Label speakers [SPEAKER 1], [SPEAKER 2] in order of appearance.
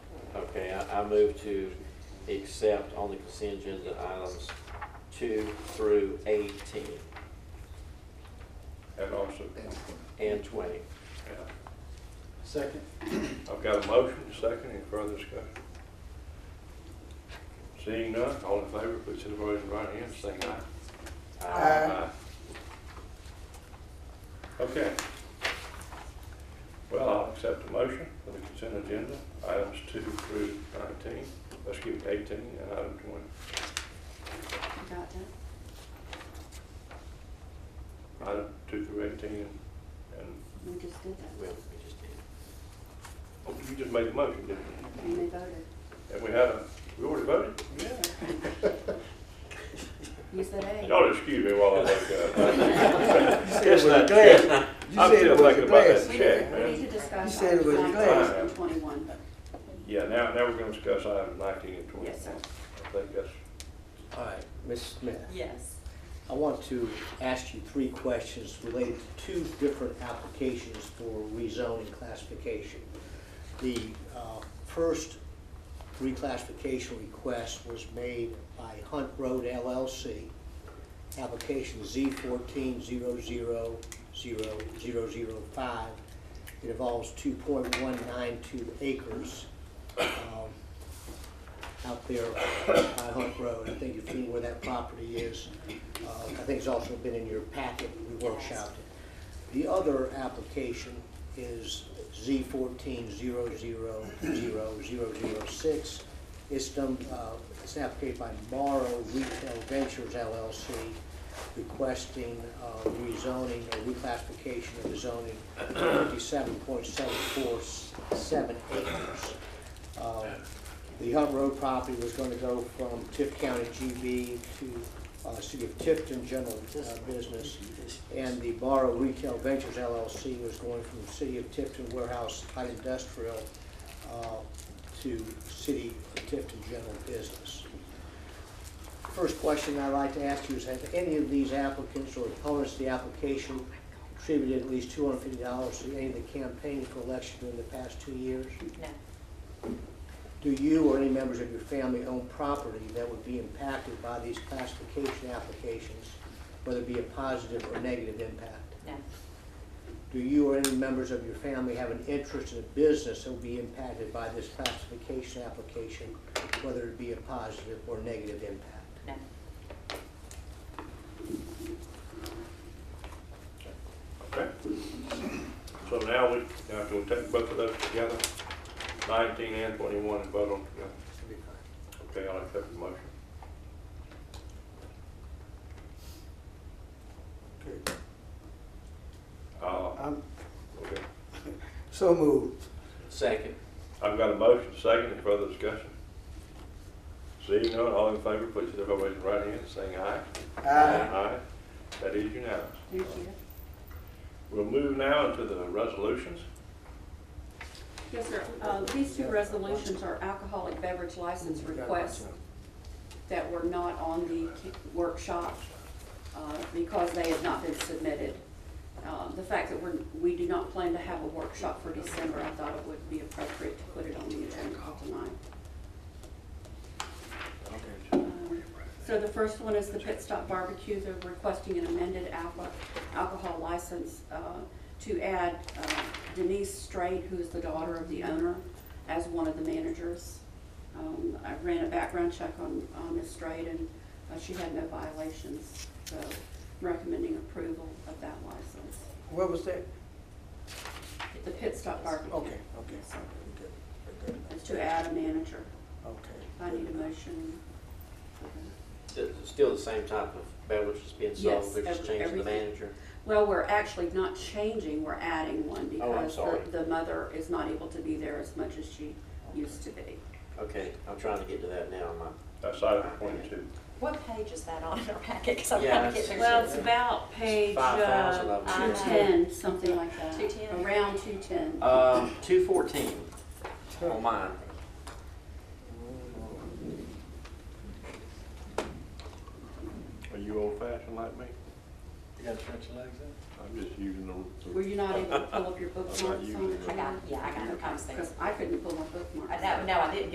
[SPEAKER 1] I move to accept on the consent agenda items two through eighteen
[SPEAKER 2] and also,
[SPEAKER 1] and twenty.
[SPEAKER 2] yeah.
[SPEAKER 3] Second.
[SPEAKER 2] I've got a motion, second, any further discussion? Seeing none, all in favor, please sit by your right hand, saying aye.
[SPEAKER 1] Aye.
[SPEAKER 2] Okay. Well, I'll accept the motion for the consent agenda, items two through nineteen, let's give it eighteen and item twenty.
[SPEAKER 4] You got that?
[SPEAKER 2] Item two through eighteen and, and,
[SPEAKER 4] We just did that.
[SPEAKER 1] Well, we just did.
[SPEAKER 2] oh, you just made the motion, didn't you?
[SPEAKER 4] And they voted.
[SPEAKER 2] And we had a, we already voted?
[SPEAKER 4] You said aye.
[SPEAKER 2] Y'all excuse me while I look up.
[SPEAKER 3] You said
[SPEAKER 2] It's
[SPEAKER 3] it with
[SPEAKER 2] not
[SPEAKER 3] a glance.
[SPEAKER 2] check.
[SPEAKER 3] You
[SPEAKER 2] I'm
[SPEAKER 3] said
[SPEAKER 2] still
[SPEAKER 3] it with
[SPEAKER 2] thinking about
[SPEAKER 3] a glance.
[SPEAKER 2] that
[SPEAKER 4] We
[SPEAKER 2] check,
[SPEAKER 4] need we
[SPEAKER 2] man.
[SPEAKER 4] need to
[SPEAKER 3] You
[SPEAKER 4] discuss
[SPEAKER 3] said it
[SPEAKER 4] items
[SPEAKER 3] was
[SPEAKER 4] nineteen
[SPEAKER 2] glad.
[SPEAKER 4] and twenty-one, but
[SPEAKER 2] Yeah, now, now we're gonna discuss items nineteen and twenty.
[SPEAKER 4] Yes, sir.
[SPEAKER 2] I think that's,
[SPEAKER 3] All right, Ms. Smith,
[SPEAKER 4] yes.
[SPEAKER 3] I want to ask you three questions related to two different applications for rezoning classification. The uh, first reclassification request was made by Hunt Road LLC, application Z fourteen zero zero zero zero zero five. It involves two point one nine two acres um, out there by Hunt Road. I think you've seen where that property is. Uh, I think it's also been in your packet, we workshopped it. The other application is Z fourteen zero zero zero zero zero six. It's done, uh, it's an application by Morrow Retail Ventures LLC requesting, uh, rezoning or reclassification of the zoning fifty-seven point seven four seven acres. Uh, The Hunt Road property was gonna go from Tift County GB to, uh, City of Tifton General uh, Business and the Borrow Retail Ventures LLC was going from the City of Tifton Warehouse Light Industrial uh, to City of Tifton General Business. First question I'd like to ask you is, have any of these applicants or opponents to the application contributed at least two hundred fifty dollars to any of the campaigns for election during the past two years?
[SPEAKER 4] No,
[SPEAKER 3] Do you or any members of your family own property that would be impacted by these classification applications, whether it be a positive or negative impact?
[SPEAKER 4] no,
[SPEAKER 3] Do you or any members of your family have an interest in a business that will be impacted by this classification application, whether it be a positive or negative impact?
[SPEAKER 4] no.
[SPEAKER 2] okay. So now we, now we'll take both of those together, nineteen and twenty-one, and vote on together. Okay, I'll accept the motion.
[SPEAKER 5] Okay,
[SPEAKER 2] Uh,
[SPEAKER 5] I'm
[SPEAKER 2] okay.
[SPEAKER 5] so moved.
[SPEAKER 1] Second.
[SPEAKER 2] I've got a motion, second, any further discussion? Seeing none, all in favor, please sit by your right hand, saying aye.
[SPEAKER 5] Aye.
[SPEAKER 2] Aye, that is unanimous.
[SPEAKER 4] Thank you.
[SPEAKER 2] We'll move now into the resolutions.
[SPEAKER 4] Yes, sir. Uh, These two resolutions are alcoholic beverage license requests that were not on the ki- workshop uh, because they have not been submitted. Uh, The fact that we're, we do not plan to have a workshop for December, I thought it would be appropriate to put it on the agenda tonight. Um, So the first one is the Pit Stop Barbecue, they're requesting an amended alco- alcohol license uh, to add uh, Denise Straight, who is the daughter of the owner, as one of the managers. Um, I ran a background check on on Ms. Straight, and uh, she had no violations, so recommending approval of that license.
[SPEAKER 5] What was that?
[SPEAKER 4] The Pit Stop Barbecue.
[SPEAKER 5] Okay, okay.
[SPEAKER 4] Yes, sir.
[SPEAKER 5] Good, good,
[SPEAKER 4] It's to add a manager.
[SPEAKER 5] Okay.
[SPEAKER 4] I need a motion.
[SPEAKER 1] Sti- Still the same type of beverage that's being
[SPEAKER 4] Yes,
[SPEAKER 1] sold, they're just
[SPEAKER 4] every-
[SPEAKER 1] changing the
[SPEAKER 4] everything.
[SPEAKER 1] manager.
[SPEAKER 4] Well, we're actually not changing, we're adding one
[SPEAKER 1] Oh, I'm
[SPEAKER 4] because
[SPEAKER 1] sorry.
[SPEAKER 4] the, the mother is not able to be there as much as she used to be.
[SPEAKER 1] Okay, I'm trying to get to that now, am I?
[SPEAKER 2] That's item twenty-two.
[SPEAKER 6] What page is that on in our packet? Because I'm
[SPEAKER 1] Yeah,
[SPEAKER 6] trying to
[SPEAKER 1] it's-
[SPEAKER 6] get there.
[SPEAKER 4] Well, it's about page,
[SPEAKER 1] Five thousand
[SPEAKER 4] uh,
[SPEAKER 1] of
[SPEAKER 6] I
[SPEAKER 4] two
[SPEAKER 1] them.
[SPEAKER 6] know.
[SPEAKER 4] ten, something like that.
[SPEAKER 6] 210.
[SPEAKER 4] Around two ten.
[SPEAKER 1] Um, two fourteen on mine.
[SPEAKER 2] Are you old fashioned like me?
[SPEAKER 7] You gotta stretch your legs out.
[SPEAKER 2] I'm just using the.
[SPEAKER 4] Were you not able to pull up your bookmarks
[SPEAKER 2] usually.
[SPEAKER 4] on the
[SPEAKER 6] I got, yeah, I got
[SPEAKER 4] Okay,
[SPEAKER 6] it. I was thinking.
[SPEAKER 4] Because I couldn't pull my bookmarks.
[SPEAKER 6] Uh, No, no, I didn't